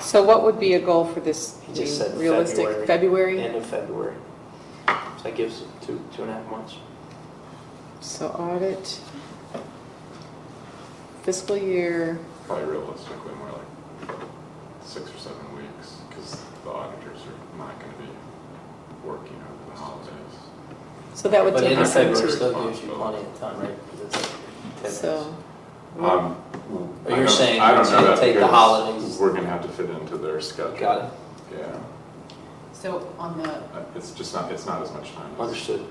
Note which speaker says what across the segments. Speaker 1: So what would be a goal for this?
Speaker 2: He just said
Speaker 1: being realistic?
Speaker 2: February.
Speaker 1: February?
Speaker 2: End of February. So that gives two, two and a half months.
Speaker 1: So audit, fiscal year,
Speaker 3: Probably realistically more like six or seven weeks, because the auditors are not gonna be working over the holidays.
Speaker 1: so that would
Speaker 2: But
Speaker 1: take
Speaker 2: end of
Speaker 1: us up
Speaker 3: February
Speaker 2: February
Speaker 1: to,
Speaker 2: still gives you plenty of time, right? 'Cause it's like 10 days.
Speaker 1: so.
Speaker 3: Um,
Speaker 2: Or
Speaker 3: I
Speaker 2: you're
Speaker 3: don't-
Speaker 2: saying
Speaker 3: I don't
Speaker 2: it's
Speaker 3: know
Speaker 2: gonna
Speaker 3: that
Speaker 2: take the
Speaker 3: because
Speaker 2: holidays.
Speaker 3: We're gonna have to fit into their schedule.
Speaker 2: Got it,
Speaker 3: Yeah,
Speaker 4: So on the,
Speaker 3: Uh, it's just not, it's not as much time as it
Speaker 2: understood.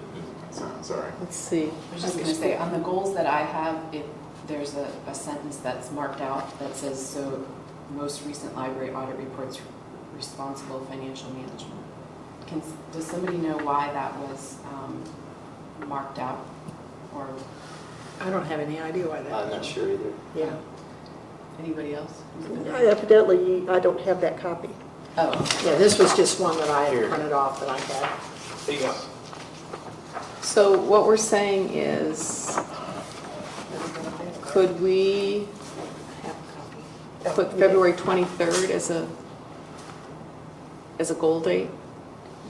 Speaker 3: sounds, sorry.
Speaker 1: Let's see.
Speaker 4: I was just gonna say, on the goals that I have, it, there's a, a sentence that's marked out that says, so most recent library audit reports responsible financial management. Can, does somebody know why that was, um, marked out? Or
Speaker 5: I don't have any idea why that,
Speaker 2: I'm not sure either.
Speaker 5: yeah.
Speaker 4: anybody else?
Speaker 5: I Evidently, I don't have that copy.
Speaker 4: Oh,
Speaker 5: Yeah, this was just one that I
Speaker 2: Here.
Speaker 5: had printed off that I had.
Speaker 2: There you go.
Speaker 1: So what we're saying is, could we
Speaker 5: I have a copy.
Speaker 1: put February 23rd as a, as a goal date?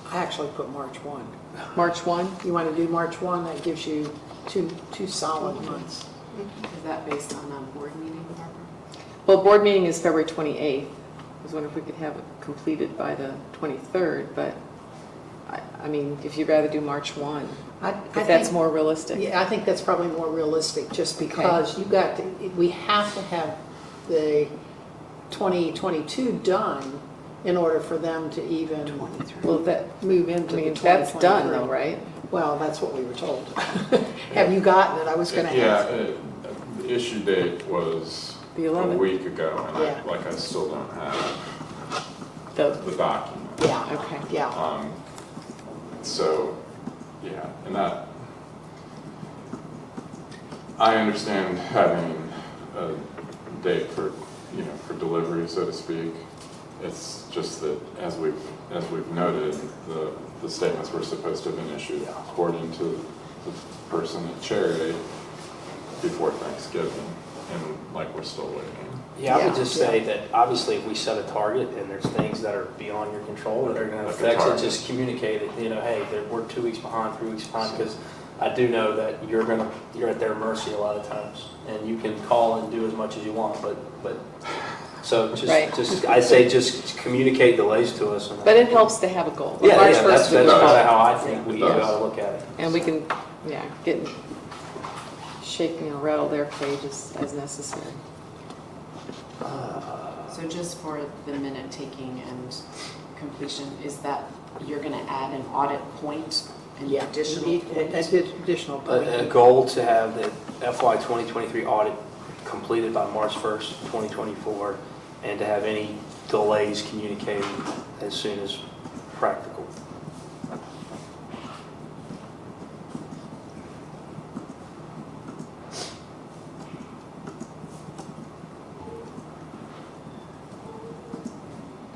Speaker 5: I actually put March 1.
Speaker 1: March 1?
Speaker 5: You want to do March 1, that gives you two, two solid months.
Speaker 4: is that based on a board meeting, Barbara?
Speaker 1: Well, board meeting is February 28th. I was wondering if we could have it completed by the 23rd, but I, I mean, if you'd rather do March 1,
Speaker 5: I- I
Speaker 1: if that's
Speaker 5: think-
Speaker 1: more realistic.
Speaker 5: Yeah, I think that's probably more realistic, just because you got, to- we have to have the 2022 done in order for them to even
Speaker 1: Well, that,
Speaker 5: move
Speaker 1: I
Speaker 5: into the
Speaker 1: mean, that's done though,
Speaker 5: 2023.
Speaker 1: right?
Speaker 5: Well, that's what we were told. Have you gotten it? I was gonna
Speaker 3: Yeah,
Speaker 5: ask.
Speaker 3: uh, the issue date was
Speaker 1: The
Speaker 3: a
Speaker 1: 11th,
Speaker 3: week ago, and
Speaker 5: Yeah.
Speaker 3: I, like, I still don't have
Speaker 1: the,
Speaker 3: the document.
Speaker 5: Yeah,
Speaker 1: okay.
Speaker 5: yeah.
Speaker 3: Um, so, yeah, and that, I understand having a date for, you know, for delivery, so to speak. It's just that as we've, as we've noted, the, the statements were supposed to have been issued according to the person at Cherry before Thanksgiving, and like, we're still waiting.
Speaker 2: Yeah, I
Speaker 5: Yeah.
Speaker 2: would just say that obviously if we set a target and there's things that are beyond your control that are going to
Speaker 3: Like a
Speaker 2: affect it,
Speaker 3: target.
Speaker 2: just communicate it, you know, hey, they're- we're two weeks behind, three weeks behind, because I do know that you're going to, you're at their mercy a lot of times. And you can call and do as much as you want, but, but, so
Speaker 1: Right.
Speaker 2: just, just, I say just communicate delays to us. and-
Speaker 1: But it helps to have a goal. like
Speaker 2: Yeah,
Speaker 1: March
Speaker 2: yeah, that's, that's
Speaker 1: 1st would
Speaker 2: kind
Speaker 1: be
Speaker 3: kinda
Speaker 2: of
Speaker 1: fine.
Speaker 2: how I think we
Speaker 3: It does.
Speaker 2: gotta look at it.
Speaker 1: And we can, yeah, get, shake and rattle their pages as necessary.
Speaker 4: So just for the minute taking and completion, is that you're gonna add an audit point, an
Speaker 5: Yeah.
Speaker 4: additional point?
Speaker 5: Additional
Speaker 2: A- A
Speaker 5: point.
Speaker 2: goal to have the FY 2023 audit completed by March 1st, 2024, and to have any delays communicated as soon as practical.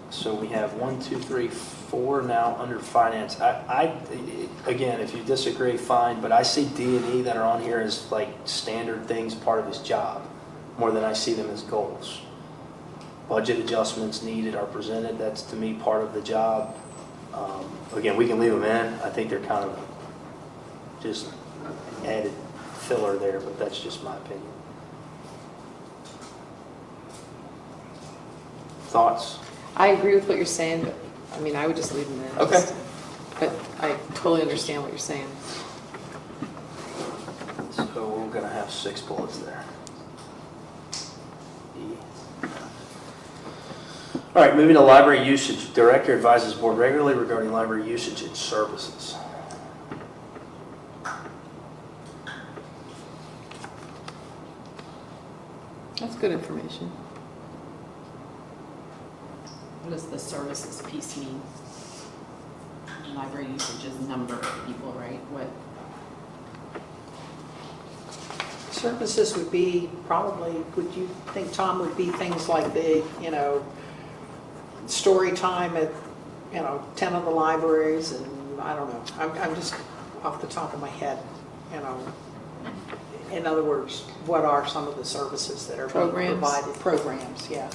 Speaker 2: So we have one, two, three, four now under finance. I, I, again, if you disagree, fine, but I see D and E that are on here as like standard things, part of his job, more than I see them as goals. Budget adjustments needed are presented, that's to me part of the job. Um, Again, we can leave them in, I think they're kind of just added filler there, but that's just my opinion. Thoughts?
Speaker 1: I agree with what you're saying, but, I mean, I would just leave them there.
Speaker 2: Okay.
Speaker 1: just- But I totally understand what you're saying.
Speaker 2: So we're gonna have six bullets there. E. All right, moving to library usage. Director advises board regularly regarding library usage and services.
Speaker 1: That's good information.
Speaker 4: What does the services piece mean? Library usage is number of people, right? What,
Speaker 5: Services would be probably, would you think, Tom, would be things like the, you know, story time at, you know, 10 of the libraries and, I don't know. I'm, I'm just off the top of my head, you know. In other words, what are some of the services that are being
Speaker 1: Programs?
Speaker 5: provided? Programs, yeah.